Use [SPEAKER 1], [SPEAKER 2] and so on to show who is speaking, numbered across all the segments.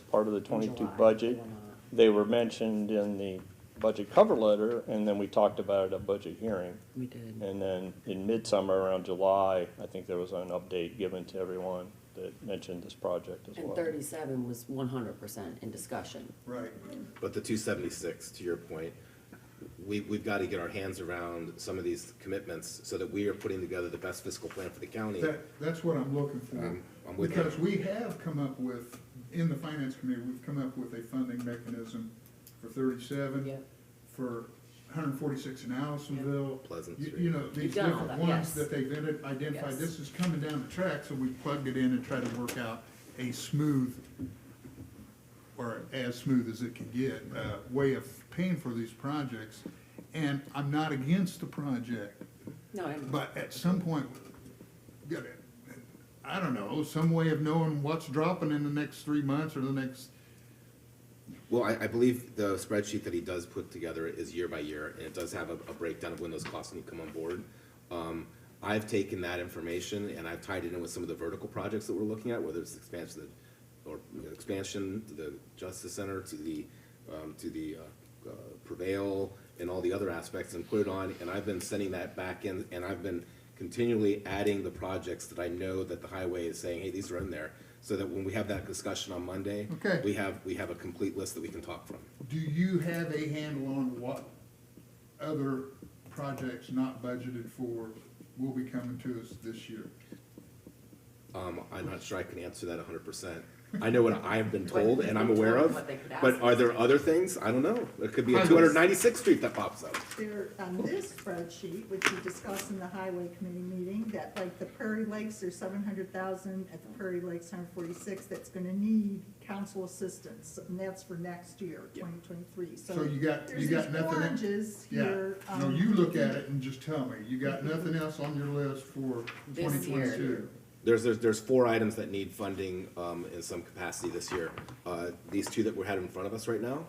[SPEAKER 1] part of the
[SPEAKER 2] in
[SPEAKER 1] twenty-two
[SPEAKER 2] July
[SPEAKER 1] budget.
[SPEAKER 2] or not.
[SPEAKER 1] They were mentioned in the budget cover letter, and then we talked about it at budget hearing.
[SPEAKER 2] We did.
[SPEAKER 1] And then in midsummer, around July, I think there was an update given to everyone that mentioned this project as
[SPEAKER 2] And
[SPEAKER 1] well.
[SPEAKER 2] thirty-seven was one hundred percent in discussion.
[SPEAKER 3] Right.
[SPEAKER 4] But the two seventy-six, to your point, we, we've gotta get our hands around some of these commitments so that we are putting together the best fiscal plan for the county.
[SPEAKER 3] That, that's what I'm looking for.
[SPEAKER 4] Um, I'm with you.
[SPEAKER 3] Because we have come up with, in the finance committee, we've come up with a funding mechanism for thirty-seven.
[SPEAKER 2] Yeah.
[SPEAKER 3] For hundred and forty-six in Allisonville.
[SPEAKER 4] Pleasant
[SPEAKER 3] You-
[SPEAKER 4] Street.
[SPEAKER 3] You know, these
[SPEAKER 2] done all that,
[SPEAKER 3] different ones
[SPEAKER 2] yes.
[SPEAKER 3] that they've ident- identified,
[SPEAKER 2] Yes.
[SPEAKER 3] this is coming down the track, so we plugged it in and tried to work out a smooth, or as smooth as it can get, uh, way of paying for these projects. And I'm not against the project,
[SPEAKER 2] No, and
[SPEAKER 3] but at some point, gotta- I don't know, some way of knowing what's dropping in the next three months or the next,
[SPEAKER 4] Well, I, I believe the spreadsheet that he does put together is year by year, and it does have a, a breakdown of when those costs need to come on board. Um, I've taken that information and I've tied it in with some of the vertical projects that we're looking at, whether it's expansion, of- or you know, expansion to the Justice Center, to the, um, to the, uh, uh, Prevail, and all the other aspects, and put it on, and I've been sending that back in, and I've been continually adding the projects that I know that the highway is saying, hey, these are in there, so that when we have that discussion on Monday,
[SPEAKER 3] Okay.
[SPEAKER 4] we have, we have a complete list that we can talk from.
[SPEAKER 3] do you have a handle on what other projects not budgeted for will be coming to us this year?
[SPEAKER 4] Um, I'm not sure I can answer that hundred percent. I know what I've been told and I'm
[SPEAKER 2] But
[SPEAKER 4] aware of,
[SPEAKER 2] what they could ask.
[SPEAKER 4] but are there other things? I don't know. It could be a
[SPEAKER 3] Highways.
[SPEAKER 4] two hundred ninety-sixth street that pops up.
[SPEAKER 5] There, on this spreadsheet, which we discussed in the highway committee meeting, that like the Prairie Lakes are seven hundred thousand, at the Prairie Lakes, hundred forty-six, that's gonna need council assistance, and that's for next year,
[SPEAKER 4] Yeah.
[SPEAKER 5] twenty twenty-three, so.
[SPEAKER 3] So you got- you got nothing in-
[SPEAKER 5] There's these oranges
[SPEAKER 3] Yeah,
[SPEAKER 5] here.
[SPEAKER 3] no,
[SPEAKER 5] um,
[SPEAKER 3] you look at it and just tell me, you got nothing else on your list for twenty
[SPEAKER 2] This year.
[SPEAKER 3] twenty-two?
[SPEAKER 4] There's, there's, there's four items that need funding, um, in some capacity this year. Uh, these two that we had in front of us right now.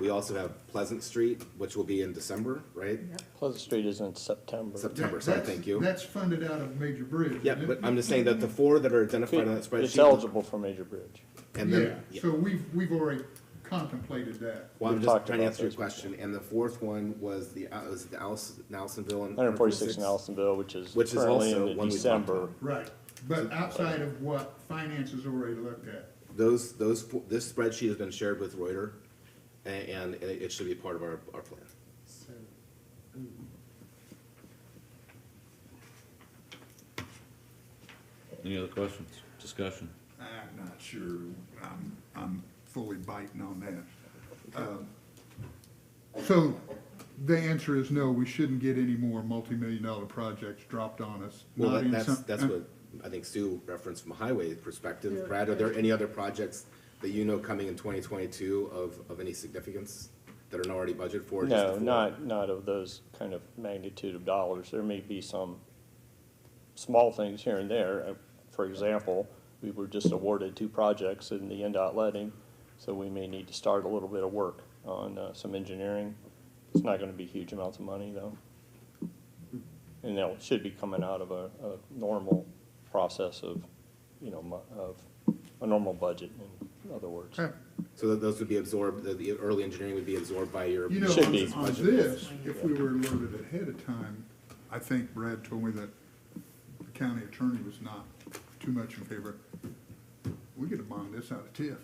[SPEAKER 4] We also have Pleasant Street, which will be in December, right?
[SPEAKER 5] Yep.
[SPEAKER 1] Pleasant Street is in September.
[SPEAKER 4] September. Sorry, thank you.
[SPEAKER 3] That's funded out of Major Bridge.
[SPEAKER 4] Yeah,
[SPEAKER 3] isn't
[SPEAKER 4] but
[SPEAKER 3] it?
[SPEAKER 4] I'm just saying that the four that are identified on that spreadsheet.
[SPEAKER 1] It's eligible for Major Bridge.
[SPEAKER 4] And then,
[SPEAKER 3] Yeah, so we've, we've already contemplated that.
[SPEAKER 4] Well, I'm
[SPEAKER 1] We've
[SPEAKER 4] just
[SPEAKER 1] talked
[SPEAKER 4] trying to
[SPEAKER 1] about
[SPEAKER 4] answer your
[SPEAKER 1] those before.
[SPEAKER 4] question, and the fourth one was the, uh, was it the Allison, Allisonville and.
[SPEAKER 1] Hundred and forty-six in Allisonville, which is
[SPEAKER 4] Which is
[SPEAKER 1] currently
[SPEAKER 4] also
[SPEAKER 1] in
[SPEAKER 4] one we talked
[SPEAKER 1] December.
[SPEAKER 4] about.
[SPEAKER 3] Right, but outside of what finance has already looked at.
[SPEAKER 4] Those, those, fo- this spreadsheet has been shared with Reuter, a- and it it should be part of our, our plan.
[SPEAKER 2] so, mm,
[SPEAKER 6] Any other questions, discussion?
[SPEAKER 3] I'm not sure, I'm, I'm fully biting on that. Uh, Um, So the answer is no, we shouldn't get any more multi-million dollar projects dropped on us.
[SPEAKER 4] Well,
[SPEAKER 3] not
[SPEAKER 4] that-
[SPEAKER 3] in
[SPEAKER 4] that's,
[SPEAKER 3] some- uh,
[SPEAKER 4] that's what I think Sue referenced from a highway perspective.
[SPEAKER 5] Yeah.
[SPEAKER 4] Brad, are there any other projects that you know coming in twenty twenty-two of, of any significance that are not already budgeted for? just the
[SPEAKER 1] No,
[SPEAKER 4] four?
[SPEAKER 1] not, not of those kind of magnitude of dollars. There may be some small things here and there. Uh, For example, we were just awarded two projects in the NDOT letting, so we may need to start a little bit of work on uh, some engineering. It's not gonna be huge amounts of money, though. And that should be coming out of a, a normal process of, you know, mo- of a normal budget, in other words.
[SPEAKER 3] Okay.
[SPEAKER 4] So that those would be absorbed, the, the early engineering would be absorbed by your.
[SPEAKER 3] You know,
[SPEAKER 1] Should be.
[SPEAKER 3] on- on this, if we were alerted ahead of time, I think Brad told me that the county attorney was not too much in favor. We could have bonded this out of TIF.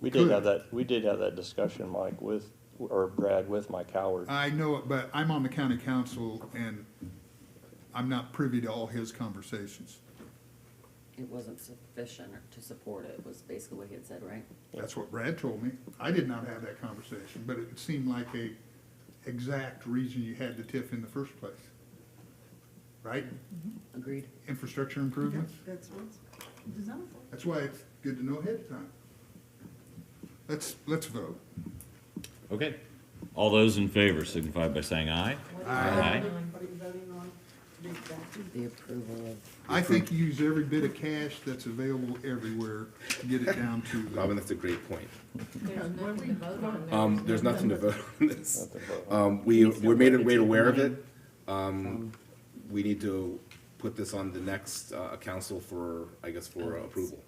[SPEAKER 1] We did have
[SPEAKER 3] Good.
[SPEAKER 1] that, we did have that discussion, Mike, with, or Brad, with Mike Howard.
[SPEAKER 3] I know it, but I'm on the county council and I'm not privy to all his conversations.
[SPEAKER 2] it wasn't sufficient to support it, was basically what he had said, right?
[SPEAKER 3] That's what Brad told me. I did not have that conversation, but it seemed like a exact reason you had the TIF in the first place. Right?
[SPEAKER 2] Agreed?
[SPEAKER 3] Infrastructure improvements?
[SPEAKER 5] That's what it's designed for.
[SPEAKER 3] That's why it's good to know ahead of time. Let's, let's vote.
[SPEAKER 6] Okay. All those in favor signify by saying aye. Aye.
[SPEAKER 5] What are you voting on? Read that.
[SPEAKER 2] The approval of,
[SPEAKER 3] I think you use every bit of cash that's available everywhere to get it down to
[SPEAKER 4] Robin,
[SPEAKER 3] the.
[SPEAKER 4] that's a great point.
[SPEAKER 7] There's nothing to vote on.
[SPEAKER 4] Um, there's nothing to vote on this.
[SPEAKER 1] Nothing to vote
[SPEAKER 4] Um, we, we're made, made aware of it. Um, we need to put this on the next, uh, council for, I guess, for approval.